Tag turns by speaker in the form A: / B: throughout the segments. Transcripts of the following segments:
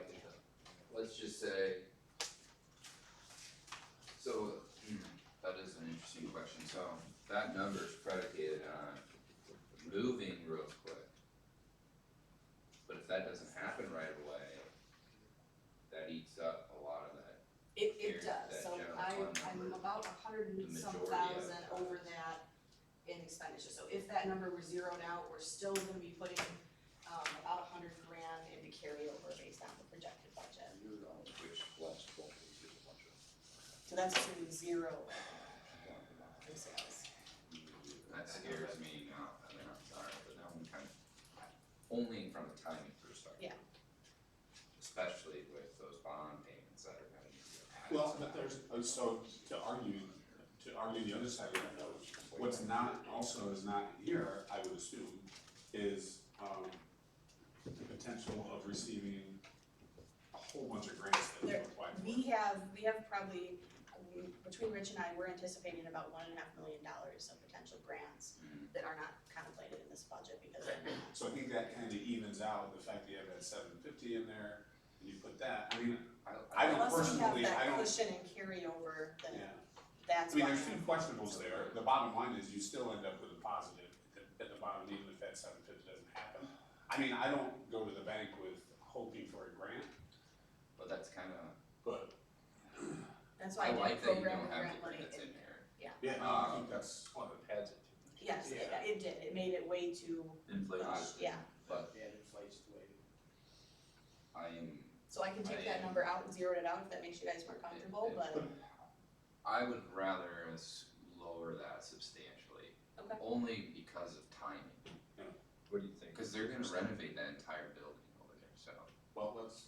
A: hmm, So that number is predicated on moving real quick. But if that doesn't happen right away, that eats up a lot of that.
B: It,
A: Here,
B: it does,
A: that
B: so
A: general
B: I,
A: fund
B: I'm
A: number,
B: about a hundred and some
A: majority of
B: thousand
A: that.
B: over that in expenditure, so if that number were zeroed out, we're still gonna be putting, um, about a hundred grand into carryover based on the projected budget.
A: Which
C: last twelve days is a bunch of.
B: So that's assuming zero in sales.
A: That scares me now, I mean, I'm sorry, but now I'm kind of, only from a timing perspective.
B: Yeah.
A: Especially with those bond payments that are gonna need to get added.
D: Well,
A: to
D: but
A: that.
D: there's, uh, so to argue, to argue the other side of that though, what's not, also is not here, I would assume, is, um, the potential of receiving a whole bunch of grants that we
B: There-
D: applied
B: We
D: for.
B: have, we have probably, um, between Rich and I, we're anticipating about one and a half million dollars of potential grants
A: Mm.
B: that are not contemplated in this budget because they're not
D: So I think that kinda evens out the fact that you have that seven fifty in there, and you put that, I mean, I don't
B: Unless we have
D: personally- I
B: that
D: don't-
B: cushion and carryover,
D: yeah.
B: then that's
D: I
B: why.
D: mean, there's two questionables there, the bottom line is you still end up with a positive at the, at the bottom, even if that seven fifty doesn't happen. I mean, I don't go to the bank with hoping for a grant,
A: But that's kind of,
D: but.
B: That's why
A: I
B: I
A: like that
B: did
A: you
B: program
A: don't
B: the
A: have
B: grant
A: the
B: money.
A: grants
B: It-
A: in here.
D: Yeah,
A: I
D: I
A: think
D: think that's.
C: One of the pads it.
B: Yes, it,
D: Yeah.
B: it did, it made it way too,
A: Inflation.
B: yeah,
A: But
C: Yeah, it inflates the way.
A: I am,
B: so I can take that
A: I-
B: number out and zero it out if that makes you guys more comfortable, but,
A: I would rather us lower that substantially,
B: okay,
A: only because of timing.
C: What do you think?
A: Because they're gonna renovate that entire building over there, so
D: Well, let's,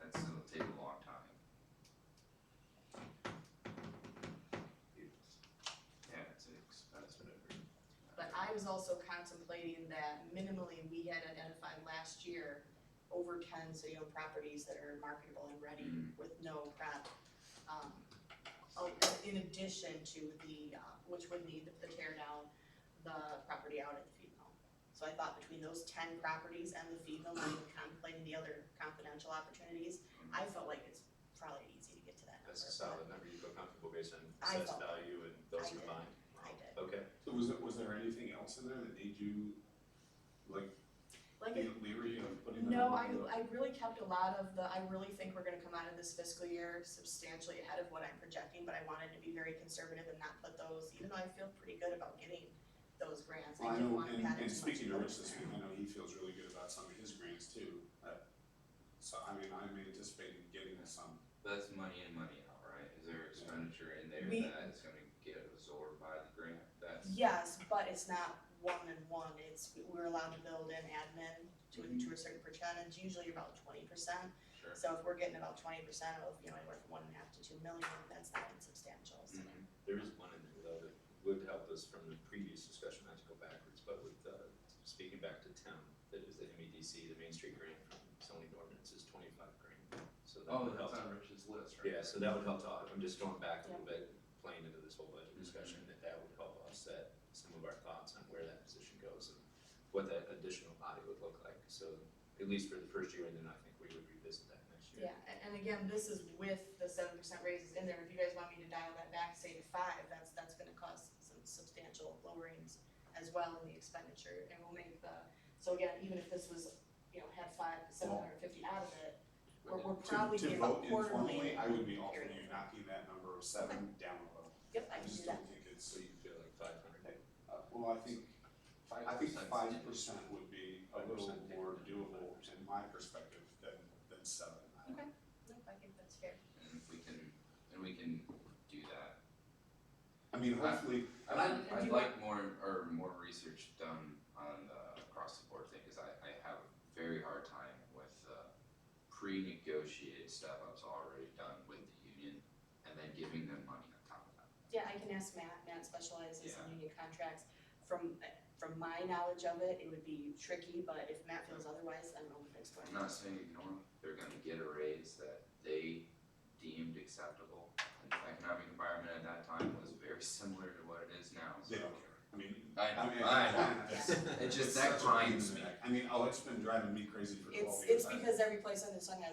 A: that's, it'll take a long time. Yeah, it's expensive.
B: but I was also contemplating that minimally, we had identified last year over ten city-owned properties that are marketable and ready
A: Mm.
B: with no prep. Um, oh, in addition to the, uh, which would need the tear down, the property out at the feed mill. So I thought between those ten properties and the feed mill, not even contemplating the other confidential opportunities, I felt like it's probably easy to get to that number.
C: That's a solid number, you feel comfortable based on
B: I
C: assessed
B: don't.
C: value and those
B: I did.
C: combined?
B: I did.
C: Okay,
D: so was there, was there anything else in there that made you, like,
B: Like,
D: be leery of putting that?
B: No, I,
D: in?
B: I really kept a lot of the, I really think we're gonna come out of this fiscal year substantially ahead of what I'm projecting, but I wanted to be very conservative and not put those, even though I feel pretty good about getting those grants,
D: Well,
B: I
D: I
B: didn't
D: know,
B: wanna
D: and,
B: pad it
D: and
B: too
D: speaking to
B: much.
D: Rich this week, I know he feels really good about some of his grants too, but, so, I mean, I'm anticipating getting um, some.
A: That's money in, money out, right? Is there expenditure in there
B: We-
A: that is gonna get absorbed by the grant? That's,
B: Yes, but it's not one and one, it's, we're allowed to build in admin to, a- to a certain percentage, usually about twenty percent.
A: sure.
B: So if we're getting about twenty percent of, you know, anywhere from one and a half to two million, that's not insubstantial, so.
A: Mhm.
C: there is one in there though that would help us from the previous discussion, not to go backwards, but with, uh, speaking back to Tim, that is the MEDC, the Main Street grant from Sony Ordinance is twenty-five grand, so that
A: Oh,
C: would help.
A: that's on Rich's list, right?
C: Yeah, so that would help to, I'm just going back a little bit, playing into this whole budget discussion, that that would help offset some of our thoughts on where that position goes and what that additional body would look like, so at least for the first year, and then I think we would revisit that next year.
B: Yeah, and, and again, this is with the seven percent raises in there, if you guys want me to dial that back, say to five, that's, that's gonna cause some substantial lowerings as well in the expenditure, and we'll make the, so again, even if this was, you know, had five, seven hundred and fifty out of it, we're, we're
D: To-
B: probably getting about
D: To vote informally,
B: quarterly.
D: I would be all for you knocking that number of seven down a little.
B: Yep, I
D: I
B: can do
D: just
B: that,
D: don't think it's,
C: So you feel like five hundred,
D: uh, well, I think,
A: Five
D: I think
A: percent's
D: five
A: in.
D: percent would be a
C: Five
D: little
C: percent, yeah.
D: more doable in my perspective than, than seven. I don't-
B: Okay. Nope, I think that's fair.
A: And if we can, and we can do that.
D: I mean, hopefully,
A: I'd
B: Um,
A: like,
B: and do
A: I'd
B: you
A: like more, or more research done on the across the board thing, cause I, I have a very hard time with the pre-negotiated step ups already done with the union and then giving them money on top of that.
B: Yeah, I can ask Matt, Matt specializes
A: Yeah.
B: in union contracts, from, from my knowledge of it, it would be tricky, but if Matt feels otherwise, I'm open to exploring.
A: I'm not saying ignore them, they're gonna get a raise that they deemed acceptable. And the economic environment at that time was very similar to what it is now, so.
D: they don't care. I mean,
A: I
D: I mean,
A: know, I know.
D: it's-
A: It just,
D: it's
A: that
D: such a pain in
A: grinds
D: the
A: me.
D: neck. I mean, oh, it's been driving me crazy for twelve
B: It's,
D: years.
B: it's
D: I-
B: because every place under the sun has